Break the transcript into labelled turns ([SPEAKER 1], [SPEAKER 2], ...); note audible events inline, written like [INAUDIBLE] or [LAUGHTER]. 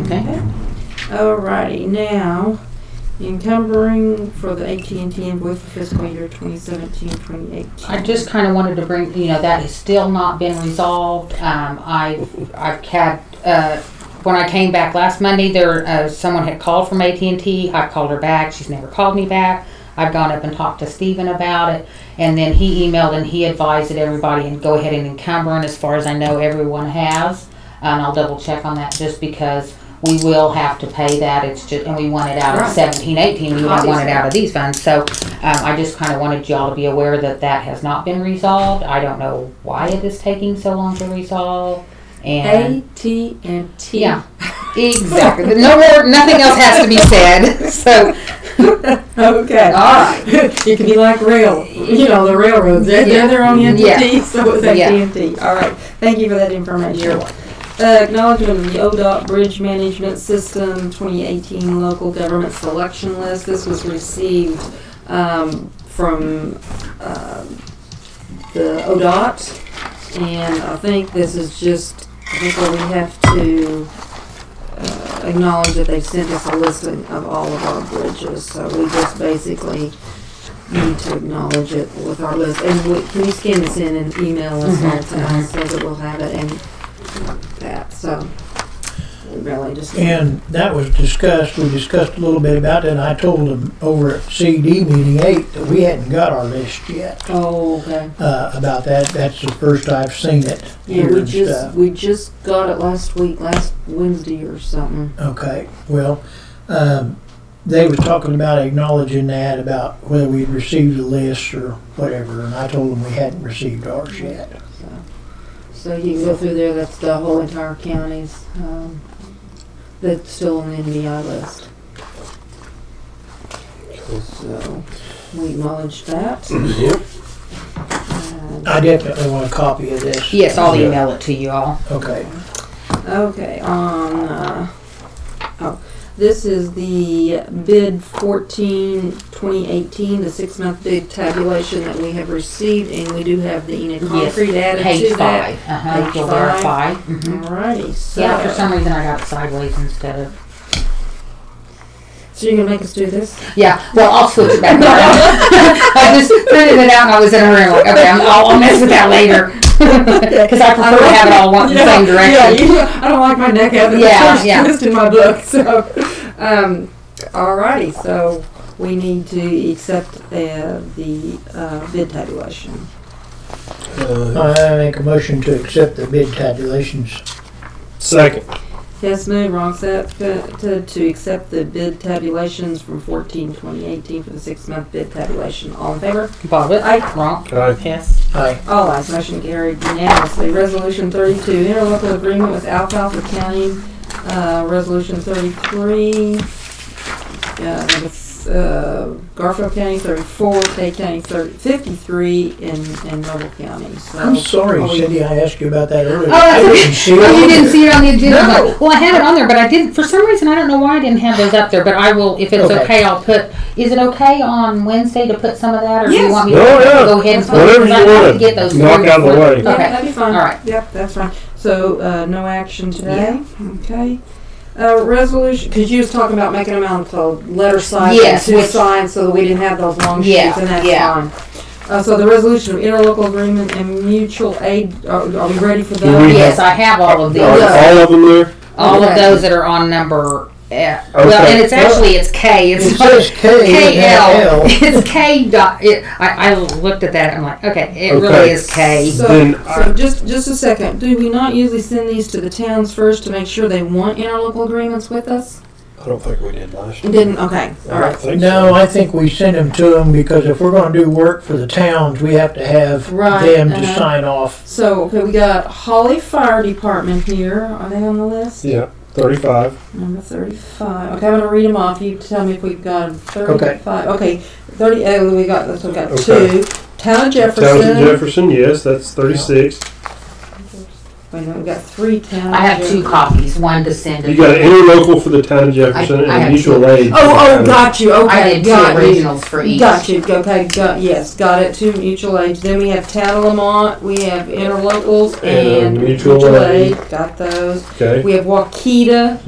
[SPEAKER 1] Okay. Alrighty, now encumbering for the AT&T invoice for fiscal year 2017-2018.
[SPEAKER 2] I just kind of wanted to bring, you know, that has still not been resolved. Um, I, I've had, uh, when I came back last Monday, there, uh, someone had called from AT&T. I've called her back. She's never called me back. I've gone up and talked to Stephen about it. And then he emailed and he advised that everybody and go ahead and encumber. And as far as I know, everyone has. And I'll double check on that just because we will have to pay that. It's just, and we want it out of
[SPEAKER 1] Right.
[SPEAKER 2] seventeen, eighteen. We don't want it
[SPEAKER 1] Obviously.
[SPEAKER 2] out of these funds. So, um, I just kind of wanted y'all to be aware that that has not been resolved. I don't know why it is taking so long to resolve. And
[SPEAKER 1] AT&T.
[SPEAKER 2] yeah, exactly. No more, nothing else has to be said. [LAUGHS] So,
[SPEAKER 1] Okay.
[SPEAKER 2] all right.
[SPEAKER 1] [LAUGHS] it could be like rail, you know, the railroads. They're, they're their own entity, [LAUGHS]
[SPEAKER 2] Yeah.
[SPEAKER 1] so it's
[SPEAKER 2] Yeah.
[SPEAKER 1] AT&T. All right. Thank you for that information. Uh, acknowledgement of the ODOT Bridge Management System 2018 Local Government Selection List. This was received um, from uh, the ODOT, and I think this is just I think where we have to uh, acknowledge that they sent us a listing of all of our bridges. So we just basically need to acknowledge it with our list. And we, can you scan this in and email us all to us so that we'll have it and that, so we really just.
[SPEAKER 3] And that was discussed, we discussed a little bit about it, and I told them over at CD meeting eight that we hadn't got our list yet,
[SPEAKER 1] Oh, okay.
[SPEAKER 3] uh, about that. That's the first I've seen it
[SPEAKER 1] Yeah,
[SPEAKER 3] here
[SPEAKER 1] we
[SPEAKER 3] and
[SPEAKER 1] just,
[SPEAKER 3] stuff.
[SPEAKER 1] we just got it last week, last Wednesday or something.
[SPEAKER 3] Okay, well, um, they were talking about acknowledging that, about whether we'd received the list or whatever, and I told them we hadn't received ours yet.
[SPEAKER 1] So- So you can go through there, that's the whole entire counties, um, that's still on the NBI list. So, we acknowledge that.
[SPEAKER 4] Yep.
[SPEAKER 1] And-
[SPEAKER 3] I definitely want a copy of this.
[SPEAKER 2] Yes, I'll email it to you all.
[SPEAKER 3] Okay,
[SPEAKER 1] Okay, on, uh, oh, this is the bid 14, 2018, the six-month bid tabulation that we have received, and we do have the Enid
[SPEAKER 2] Yes,
[SPEAKER 1] Concrete added
[SPEAKER 2] Page
[SPEAKER 1] to that.
[SPEAKER 2] five. Uh-huh,
[SPEAKER 1] Page
[SPEAKER 2] you'll
[SPEAKER 1] five.
[SPEAKER 2] verify. Mhm.
[SPEAKER 1] Alrighty,
[SPEAKER 2] Yeah, for
[SPEAKER 1] so,
[SPEAKER 2] some reason I got it sideways instead of,
[SPEAKER 1] so you're gonna make us do this?
[SPEAKER 2] yeah, well, I'll switch
[SPEAKER 1] [LAUGHS]
[SPEAKER 2] it back around. I just printed it out and I was in a hurry, like, okay, I'm- I'll, I'll mess with that later. Cause I prefer to have it all one, the same
[SPEAKER 1] Yeah,
[SPEAKER 2] direction.
[SPEAKER 1] Yeah, you, I don't like my neck having
[SPEAKER 2] Yeah,
[SPEAKER 1] a
[SPEAKER 2] yeah.
[SPEAKER 1] twist in my book. So, um, alrighty, so we need to accept uh, the uh, bid tabulation.
[SPEAKER 4] Uh,
[SPEAKER 3] I make a motion to accept the bid tabulations.
[SPEAKER 4] second.
[SPEAKER 1] Hess moved, wrong seconded to accept the bid tabulations from 14, 2018 for the six-month bid tabulation. All in favor?
[SPEAKER 2] Bobbit.
[SPEAKER 1] Aye.
[SPEAKER 2] Wrong.
[SPEAKER 4] Aye.
[SPEAKER 2] Yes.
[SPEAKER 3] Aye,
[SPEAKER 1] All ayes, motion carried unanimously. Resolution 32, interlocal agreement with Alfalfa County. Uh, Resolution 33, uh, with, uh, Garfield County 34, Tay County 30 53, and and Noble County. So-
[SPEAKER 3] I'm sorry,
[SPEAKER 1] Oh,
[SPEAKER 3] Cindy, I asked you about that earlier.
[SPEAKER 2] Oh,
[SPEAKER 3] I
[SPEAKER 2] that's okay.
[SPEAKER 3] didn't see
[SPEAKER 2] Well,
[SPEAKER 3] it.
[SPEAKER 2] you didn't see it on the agenda.
[SPEAKER 3] No.
[SPEAKER 2] but- Well, I had it on there, but I didn't, for some reason, I don't know why I didn't have those up there, but I will, if it's
[SPEAKER 3] Okay.
[SPEAKER 2] okay, I'll put, is it okay on Wednesday to put some of that, or do you
[SPEAKER 1] Yes.
[SPEAKER 2] want me to
[SPEAKER 4] Oh, yeah.
[SPEAKER 2] go ahead and? put it?
[SPEAKER 4] Whatever
[SPEAKER 2] Because
[SPEAKER 4] you
[SPEAKER 2] I'd like
[SPEAKER 4] wanna
[SPEAKER 2] to get those
[SPEAKER 4] knock
[SPEAKER 2] through
[SPEAKER 4] out of the
[SPEAKER 2] before-
[SPEAKER 4] way.
[SPEAKER 1] Yeah,
[SPEAKER 2] Okay.
[SPEAKER 1] that'd be fine.
[SPEAKER 2] All right.
[SPEAKER 1] Yep, that's fine. So, uh, no action today? Okay. Uh, resolution, cause you was talking about making them out of letter size and
[SPEAKER 2] Yes,
[SPEAKER 1] two
[SPEAKER 2] which-
[SPEAKER 1] signs so that we didn't have those long
[SPEAKER 2] Yeah,
[SPEAKER 1] sheets and that's
[SPEAKER 2] yeah.
[SPEAKER 1] fine. Uh, so the resolution of interlocal agreement and mutual aid, are, are we ready for
[SPEAKER 4] Do we-
[SPEAKER 1] those?
[SPEAKER 2] Yes, I have all of
[SPEAKER 4] Are
[SPEAKER 2] these.
[SPEAKER 4] all of them there?
[SPEAKER 2] All of
[SPEAKER 1] Okay.
[SPEAKER 2] those that are on number, eh, well,
[SPEAKER 4] Okay.
[SPEAKER 2] and it's actually, it's K,
[SPEAKER 3] It
[SPEAKER 2] [LAUGHS] it's not
[SPEAKER 3] says K and
[SPEAKER 2] KL.
[SPEAKER 3] L.
[SPEAKER 2] It's K dot, it, I, I looked at that, I'm like, okay, it really
[SPEAKER 4] Okay.
[SPEAKER 2] is K.
[SPEAKER 1] So,
[SPEAKER 4] Then
[SPEAKER 1] so just, just a second, do we not usually send these to the towns first to make sure they want interlocal agreements with us?
[SPEAKER 4] I don't think we did last year.
[SPEAKER 1] Didn't, okay,
[SPEAKER 4] I don't
[SPEAKER 1] alright,
[SPEAKER 4] think
[SPEAKER 3] No,
[SPEAKER 4] so.
[SPEAKER 3] I think we send them to them because if we're gonna do work for the towns, we have to have
[SPEAKER 1] Right,
[SPEAKER 3] them to
[SPEAKER 1] uh-huh.
[SPEAKER 3] sign off.
[SPEAKER 1] so, okay, we got Holly Fire Department here, are they on the list?
[SPEAKER 4] Yeah, 35.
[SPEAKER 1] Number thirty-five. Okay, I'm gonna read them off. You tell me if we've got thirty-five. Okay, thirty. Oh, we got this. We got
[SPEAKER 4] Okay.
[SPEAKER 1] two. Town of Jefferson.
[SPEAKER 4] Towns of Jefferson, yes, that's 36.
[SPEAKER 1] Wait a minute. We got three towns.
[SPEAKER 2] I have two copies, one to send.
[SPEAKER 4] You
[SPEAKER 2] and-
[SPEAKER 4] got an interlocal for the town of
[SPEAKER 2] I-
[SPEAKER 4] Jefferson
[SPEAKER 2] I
[SPEAKER 4] and
[SPEAKER 2] have
[SPEAKER 4] mutual aid.
[SPEAKER 1] Oh, oh, got you. Okay,
[SPEAKER 2] I did two
[SPEAKER 1] got you.
[SPEAKER 2] originals for each.
[SPEAKER 1] Got you. Okay, got yes, got it. Two mutual aids. Then we have Town of Lamont. We have interlocals
[SPEAKER 4] And
[SPEAKER 1] and,
[SPEAKER 4] mutual aid.
[SPEAKER 1] Got those.
[SPEAKER 4] Okay.
[SPEAKER 1] We have Waukita.